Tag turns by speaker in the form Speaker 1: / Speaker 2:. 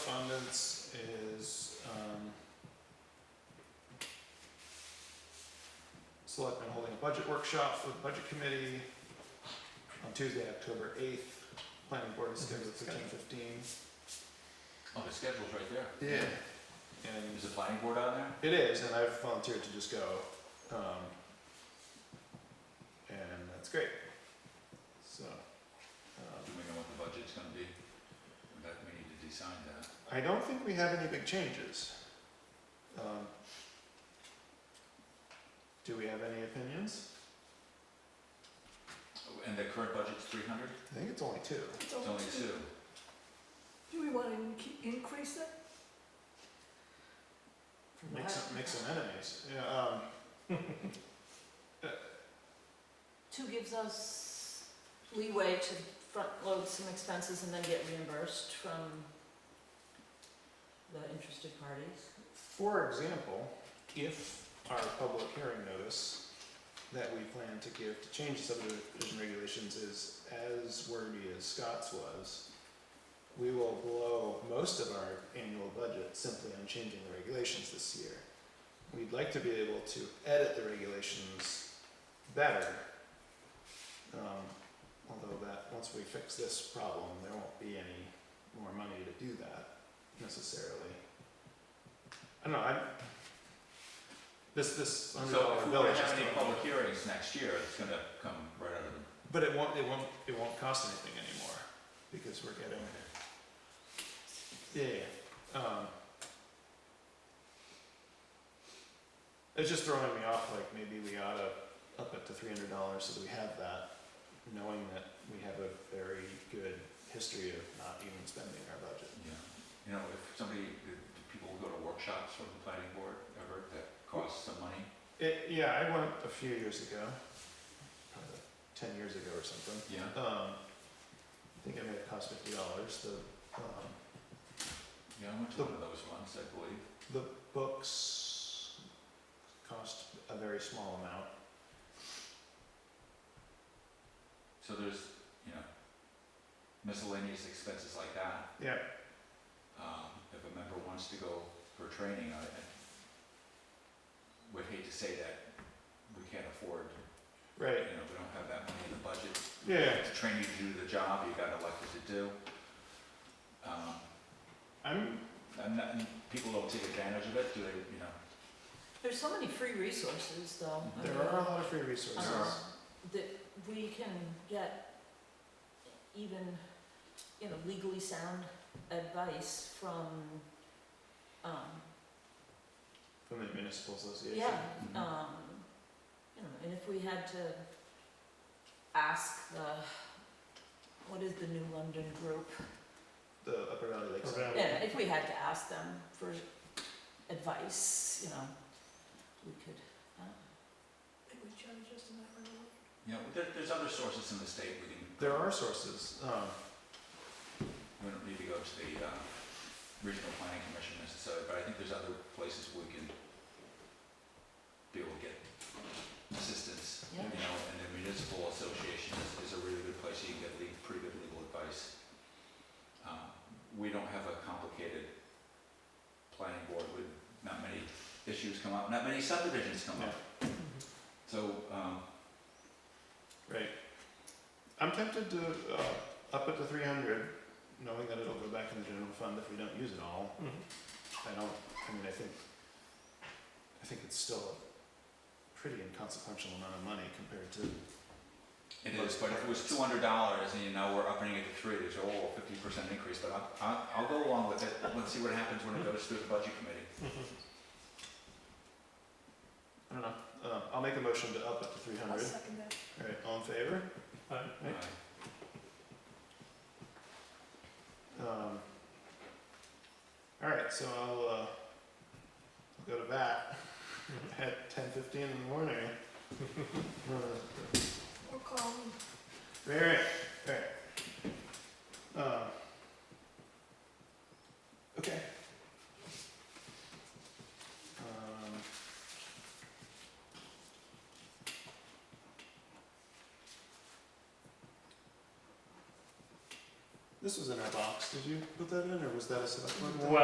Speaker 1: Correspondence is, um, Selectmen holding a budget workshop for the budget committee on Tuesday, October eighth. Planning board is scheduled fifteen fifteen.
Speaker 2: Oh, the schedule's right there.
Speaker 1: Yeah. And
Speaker 2: Is the planning board on there?
Speaker 1: It is, and I've volunteered to just go. Um, and that's great. So,
Speaker 2: Do
Speaker 1: um,
Speaker 2: we know what the budget's gonna be? In fact, we need to decide that.
Speaker 1: I don't think we have any big changes. Um, do we have any opinions?
Speaker 2: Oh, And the current budget's three hundred?
Speaker 1: I think it's only two.
Speaker 3: It's
Speaker 2: It's only two.
Speaker 3: Do we want to increase it? From
Speaker 1: Make some,
Speaker 3: what?
Speaker 1: make some enemies. Yeah, um,
Speaker 3: Two gives us leeway to front load some expenses and then get reimbursed from the interested parties.
Speaker 1: For example, if our public hearing notice that we plan to give to change the subdivision regulations is as wordy as Scott's was, we will blow most of our annual budget simply on changing the regulations this year. We'd like to be able to edit the regulations better. Um, although that, once we fix this problem, there won't be any more money to do that necessarily. I don't know, I'm, this, this hundred
Speaker 2: So
Speaker 1: dollar
Speaker 2: if we
Speaker 1: bill
Speaker 2: don't
Speaker 1: is just.
Speaker 2: have any
Speaker 1: throwing-
Speaker 2: public hearings next year, it's gonna come right out of the.
Speaker 1: But it won't, it won't, it won't cost anything anymore, because we're getting, yeah, yeah, um. It's just throwing me off, like, maybe we oughta up it to three hundred dollars so that we have that, knowing that we have a very good history of not even spending our budget.
Speaker 2: Yeah. You know, if somebody, if people go to workshops from the planning board ever that cost some money,
Speaker 1: It, yeah, I went a few years ago, probably ten years ago or something.
Speaker 2: yeah?
Speaker 1: Um, I think it may have cost fifty dollars, the, um,
Speaker 2: Yeah, I went to one of those ones, I believe.
Speaker 1: The books cost a very small amount.
Speaker 2: So there's, you know, miscellaneous expenses like that.
Speaker 1: Yeah.
Speaker 2: um, if a member wants to go for training, I, I would hate to say that we can't afford, you
Speaker 1: Right.
Speaker 2: know, we don't have that money in the budget.
Speaker 1: Yeah.
Speaker 2: To train you to do the job you got elected to do. Um,
Speaker 1: I'm
Speaker 2: and that, and people don't take advantage of it, do they, you know?
Speaker 3: There's so many free resources though. I
Speaker 1: there
Speaker 3: mean,
Speaker 1: are a lot of free resources.
Speaker 2: There
Speaker 3: um, That we can get even, you know, legally sound advice from, um,
Speaker 1: From the municipal association.
Speaker 3: Yeah,
Speaker 2: Mhm.
Speaker 3: um, you know, and if we had to ask the, what is the New London group?
Speaker 1: The Upper Valley Lakes.
Speaker 3: Yeah, if we had to ask them for advice, you know, we could, uh,
Speaker 4: They would charge us in that regard.
Speaker 2: You know, there, there's other sources in the state we can.
Speaker 1: There are sources. Um,
Speaker 2: We don't need to go to the, uh, regional planning commission necessarily, but I think there's other places we can be able to get assistance.
Speaker 3: Yeah.
Speaker 2: You know, and the municipal association is, is a really good place, you can get le- pretty good legal advice. Um, we don't have a complicated planning board with not many issues come up, not many subdivisions come up. So, um,
Speaker 1: right. I'm tempted to uh, up it to 300, knowing that it'll go back in the general fund if we don't use it all. I don't. I mean, I think. I think it's still a pretty inconsequential amount of money compared to
Speaker 2: It is, but if it was two hundred dollars and you know we're upping it to three, there's a whole fifty percent increase, but I, I, I'll go along with it. Let's see what happens when it goes through the budget committee.
Speaker 1: I don't know. Uh, I'll make a motion to up it to 300.
Speaker 4: I'll second that.
Speaker 1: All right, all in favor? Right.
Speaker 2: Uh,
Speaker 1: Um, all right, so I'll, uh, I'll go to bat at ten fifteen in the morning. Uh,
Speaker 4: Or call me.
Speaker 1: all right, all right. Um, okay. Um, This was in our box, did you put that in, or was that a select board? thing?